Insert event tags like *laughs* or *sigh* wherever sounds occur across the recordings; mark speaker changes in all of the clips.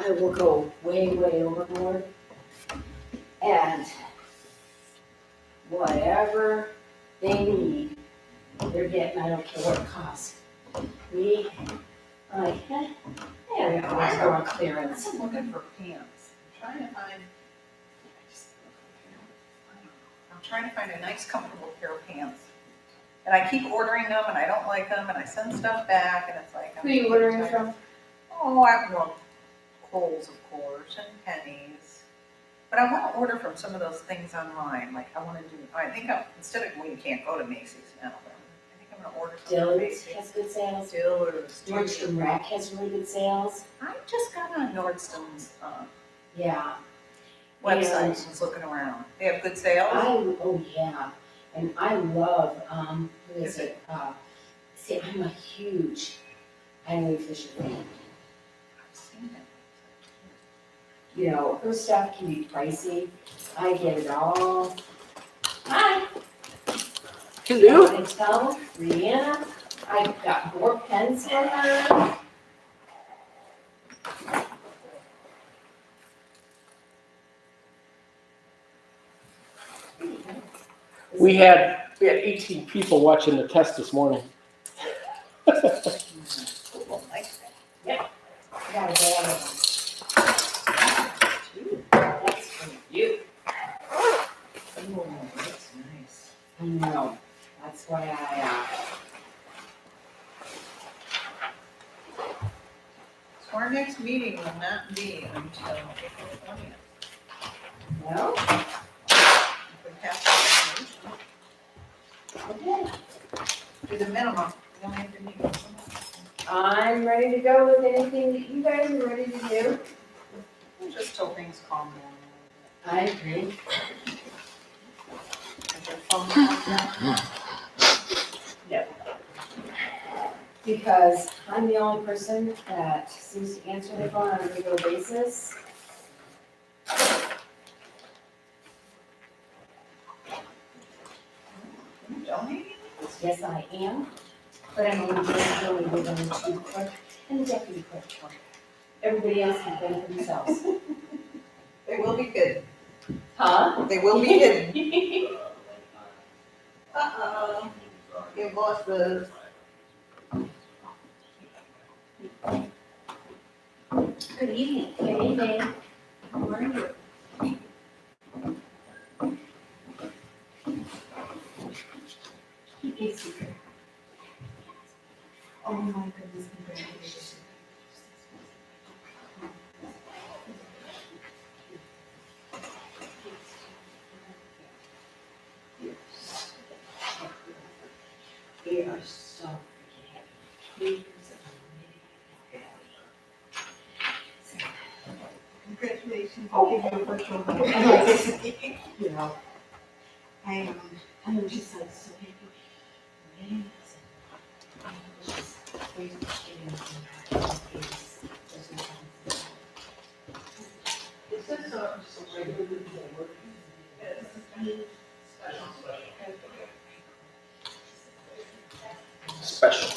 Speaker 1: that will go way, way overboard. And whatever they need, they're getting, I don't care what it costs. We, like, eh, yeah, we always go on clearance.
Speaker 2: I'm looking for pants. I'm trying to find. I just- I don't know. I'm trying to find a nice comfortable pair of pants. And I keep ordering them and I don't like them and I send stuff back and it's like. I'm
Speaker 1: Who are you ordering
Speaker 2: tired.
Speaker 1: from?
Speaker 2: Oh, I want Kohl's, of course, and Penny's. But I wanna order from some of those things online, like I wanna do, I think I, instead of, well, you can't go to Macy's now, but I think I'm gonna order from
Speaker 1: Dillard's
Speaker 2: Macy's.
Speaker 1: has good sales.
Speaker 2: Dillard's.
Speaker 1: Nordstrom Rack has really good sales.
Speaker 2: I just got on Nordstrom's, um,
Speaker 1: Yeah,
Speaker 2: website,
Speaker 1: And-
Speaker 2: just looking around. They have good sales?
Speaker 1: I, oh yeah, and I love, um, who is it? Uh, see, I'm a huge Eileen Fisher fan.
Speaker 2: I've seen it.
Speaker 1: You know, her stuff can be pricey. I get it all. Hi.
Speaker 3: Hello.
Speaker 1: I tell Rihanna, I've got more pens for her.
Speaker 3: We had, we had eighteen people watching the test this morning. *laughs*
Speaker 2: People like that
Speaker 1: I got a bag of
Speaker 2: too.
Speaker 1: them. That's for you.
Speaker 2: Oh, that's nice.
Speaker 1: I know, that's why I,
Speaker 2: So our next meeting will not be until April twentieth.
Speaker 1: uh, well,
Speaker 2: We have
Speaker 1: okay.
Speaker 2: to do the minimum. We only have to meet once a month.
Speaker 1: I'm ready to go with anything that you guys are ready to do.
Speaker 2: Just till things calm down.
Speaker 1: I agree.
Speaker 2: Is your phone on now?
Speaker 1: Because I'm the only person that seems to answer the phone on a regular basis.
Speaker 2: You donating?
Speaker 1: Yes, I am, but I'm only doing really within the chief clerk and the deputy clerk. Everybody else can fend for themselves.
Speaker 2: They will be good.
Speaker 1: Huh?
Speaker 2: They will be good. Uh-oh. Your boss was.
Speaker 1: Good evening. Good evening.
Speaker 2: How are you?
Speaker 1: Keep it secret. Oh my goodness, congratulations. We are so freaking happy. Years of amazing
Speaker 2: Congratulations.
Speaker 1: Oh.
Speaker 2: Give you a virtual hug.
Speaker 1: you know, I am, I'm just like so happy. Amazing. I'm just waiting to get in and out of this. There's no time
Speaker 2: Is this a just a regular report?
Speaker 3: Special.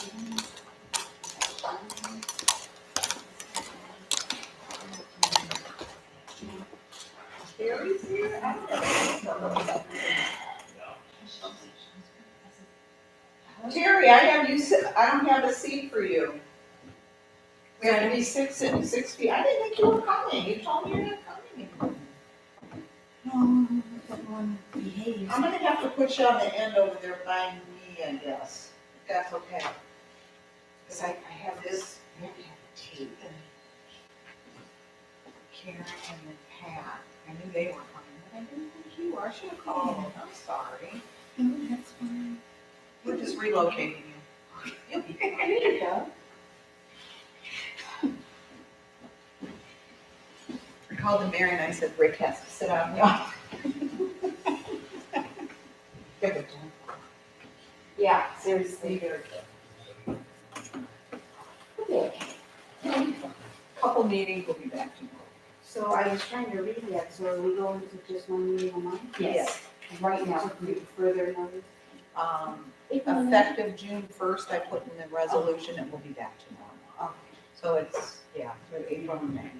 Speaker 2: Carrie's here? I don't know. Terry, I have you, sit- I don't have a seat for you. We have to be six and six feet. I didn't think you were coming. You told me you're not coming anymore.
Speaker 4: No, everyone behaves.
Speaker 2: I'm gonna have to put you on the end over there by me, I guess, if that's okay. Cause I, I have this, I have to have tape and Karen and then Pat, I knew they were coming, but I didn't think you were, I should have called, I'm sorry.
Speaker 4: No, that's fine.
Speaker 2: We're just relocating you. *laughs*
Speaker 1: for me. There you go.
Speaker 2: I called the mayor and I said, Rick has to sit out in the office. *laughs* Give it to him.
Speaker 1: Yeah, seriously. Okay.
Speaker 2: Couple meetings, we'll be back tomorrow.
Speaker 4: So I was trying to read that, so are we going to just one meeting a month?
Speaker 1: Yes, right now.
Speaker 4: Further notice?
Speaker 2: Um,
Speaker 4: If
Speaker 2: Effective June first, I put in the resolution, it will be back tomorrow.
Speaker 4: Oh.
Speaker 2: So it's, yeah, through April and May.